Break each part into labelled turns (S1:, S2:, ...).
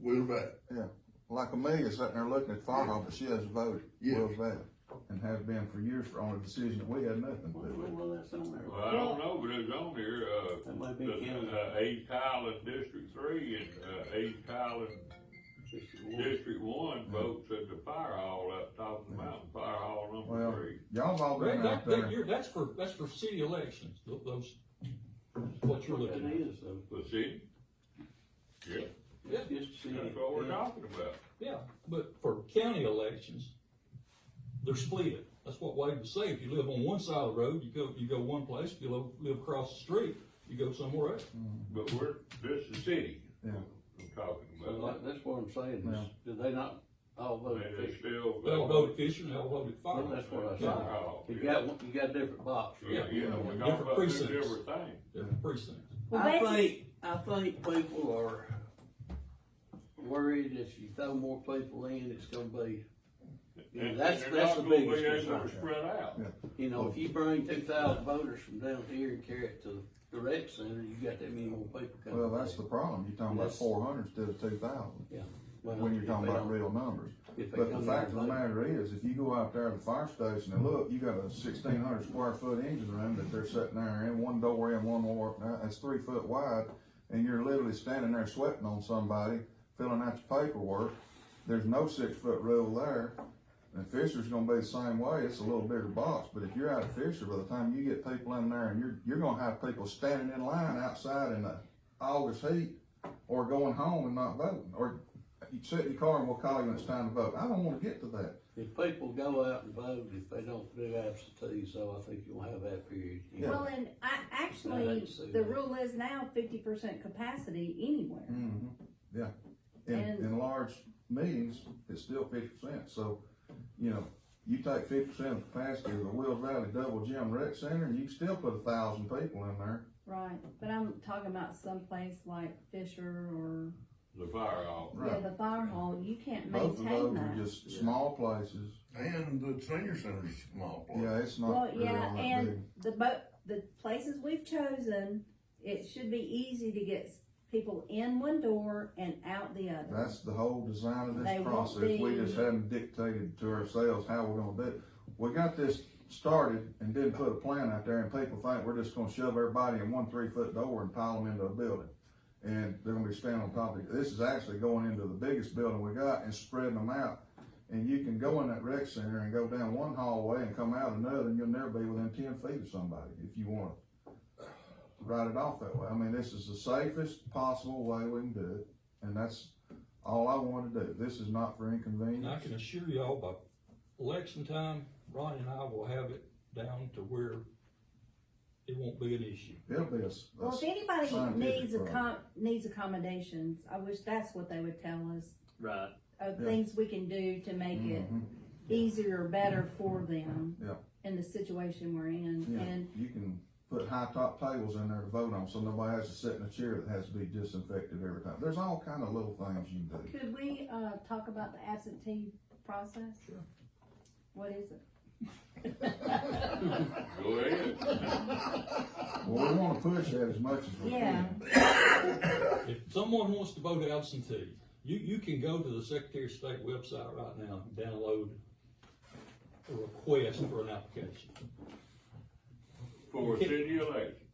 S1: Will's back.
S2: Yeah, like Amelia sitting there looking at photo, but she hasn't voted,
S1: Yeah.
S2: Will's that, and has been for years for on a decision that we had nothing to do with.
S3: Well, that's on there.
S4: Well, I don't know, but it's on here, uh,
S3: That might be counted.
S4: the, uh, East Highland District Three and, uh, East Highland
S3: Just the one.
S4: District One votes at the fire hall up top of the mountain, fire hall number
S2: Well,
S4: three.
S2: y'all all
S5: Right,
S2: been
S5: that,
S2: out
S5: that,
S2: there,
S5: you're, that's for, that's for city elections, tho- those, what you're
S3: What that
S5: looking at.
S3: is, though.
S4: The city? Yeah,
S5: Yeah,
S3: It's just the.
S4: that's what we're talking about.
S5: yeah, but for county elections, they're split. That's what Wade was saying. If you live on one side of the road, you go, you go one place. If you live, live across the street, you go somewhere else.
S4: But we're, this is city
S2: yeah,
S4: I'm talking
S3: So
S4: about.
S3: like, that's what I'm saying,
S2: Yeah.
S3: is, do they not all vote
S4: And they
S3: officially?
S4: still.
S5: They all voted Fisher, and they all voted Fire.
S3: Well, that's what I
S4: Fire
S3: said.
S4: hall,
S3: You
S4: yeah.
S3: got, one- you got a different box.
S4: Yeah, you know, we're talking
S5: Different
S4: about
S5: precincts.
S4: two different things.
S5: Different precincts.
S6: Well,
S3: I
S6: basically-
S3: think, I think people are worried if you throw more people in, it's gonna be, you know,
S4: And-
S3: that's,
S4: and they're
S3: that's the
S4: not gonna be
S3: biggest
S4: able to
S3: concern.
S4: Spread out.
S3: You know, if you bring two thousand voters from down here and carry it to the rec center, you got that many more people coming.
S2: well, that's the problem, you're talking about
S3: That's-
S2: four hundred instead of two thousand,
S3: Yeah.
S2: when you're talking about real numbers.
S3: If they
S2: But the
S3: come
S2: fact of
S3: in
S2: the
S3: late.
S2: matter is, if you go out there to the fire station and look, you got a sixteen hundred square foot engine room that they're sitting there in, one door in, one more, uh, it's three foot wide, and you're literally standing there sweating on somebody, filling out your paperwork, there's no six foot rule there. And Fisher's gonna be the same way, it's a little bigger box, but if you're out of Fisher, by the time you get people in there, and you're, you're gonna have people standing in line outside in the August heat, or going home and not voting, or you sit in your car and we'll call you when it's time to vote. I don't wanna get to that.
S3: If people go out and vote, if they don't do absentee, so I think you'll have that period.
S2: Yeah.
S6: Well, and I,
S3: I
S6: actually,
S3: didn't see
S6: the
S3: that.
S6: rule is now fifty percent capacity anywhere.
S2: Mhm. Yeah, in,
S6: And-
S2: in large meetings, it's still fifty percent, so, you know, you take fifty percent of the capacity of the Wills Valley Double Gym Rec Center, and you can still put a thousand people in there.
S6: Right, but I'm talking about someplace like Fisher or,
S4: The fire hall.
S6: yeah,
S2: Right.
S6: the fire hall, you can't
S2: Both of
S6: maintain
S2: those are
S6: that.
S2: just small places,
S1: And the senior center's a small place.
S2: yeah, it's
S6: Well,
S2: not really
S6: yeah,
S2: all that big.
S6: and the bo- the places we've chosen, it should be easy to get s- people in one door and out the other.
S2: That's the whole design of
S6: They
S2: this
S6: won't
S2: process, we
S6: be-
S2: just haven't dictated to ourselves how we're gonna do it. We got this started and didn't put a plan out there, and people think we're just gonna shove everybody in one three-foot door and pile them into a building. And they're gonna be standing on top of it, this is actually going into the biggest building we got and spreading them out. And you can go in that rec center and go down one hallway and come out another, and you'll never be within ten feet of somebody, if you wanna write it off that way. I mean, this is the safest possible way we can do it, and that's all I want to do. This is not for
S5: And I
S2: inconvenience.
S5: can assure y'all by election time, Ronnie and I will have it down to where it won't be an issue.
S2: It'll be a. s- a
S6: Well, if
S2: s-
S6: anybody
S2: scientific
S6: needs a
S2: problem.
S6: com- needs accommodations, I wish that's what they would tell us,
S3: Right.
S6: of
S2: Yeah.
S6: things we can do to make it
S2: Mhm.
S6: easier or better for them.
S2: Mm-hmm. Yeah.
S6: In the situation we're in,
S2: Yeah.
S6: and,
S2: You can put high top tables in there to vote on, so nobody has to sit in a chair that has to be disinfected every time. There's all kind of little things you can do.
S6: could we, uh, talk about the absentee process?
S5: Sure.
S6: What is it?
S4: Go ahead.
S2: Well, we want to push that as much as we
S6: Yeah,
S2: can.
S5: If someone wants to vote absentee, you, you can go to the Secretary of State website right now, and download a request for an application,
S4: For a city election.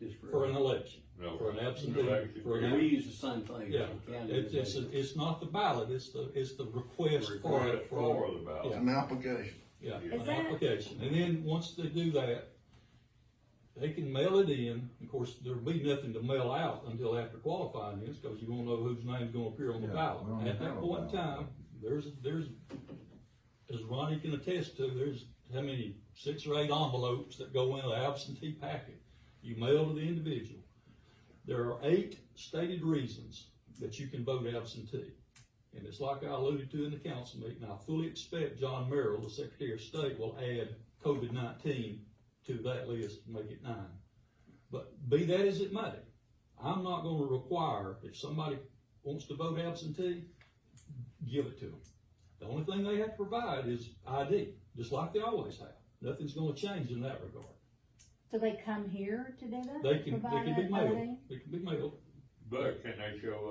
S3: Just for.
S5: for an election,
S4: No,
S5: for an absentee,
S4: election.
S5: for
S3: And we
S5: an,
S3: use the same thing.
S5: yeah.
S3: as the county
S5: It's, it's, it's not the ballot, it's the, it's the request for,
S4: Request
S5: it,
S4: for
S5: for,
S4: the ballot.
S1: It's an application.
S5: yeah,
S6: Is
S5: an
S6: that-
S5: application. And then, once they do that, they can mail it in. Of course, there'll be nothing to mail out until after qualifying is, because you won't know whose name's gonna appear on the
S2: Yeah,
S5: ballot.
S2: we don't
S5: At
S2: have
S5: that
S2: a
S5: point in
S2: ballot.
S5: time, there's, there's, as Ronnie can attest to, there's how many, six or eight envelopes that go in an absentee packet. You mail to the individual. There are eight stated reasons that you can vote absentee. And it's like I alluded to in the council meeting, I fully expect John Merrill, the Secretary of State, will add COVID nineteen to that list, and make it nine. But be that as it may, I'm not gonna require, if somebody wants to vote absentee, give it to them. The only thing they have to provide is ID, just like they always have. Nothing's gonna change in that regard.
S6: so they come here to do that?
S5: They can, they
S6: Provide
S5: can be
S6: that
S5: mailed,
S6: voting?
S5: they can be mailed.
S4: But can they show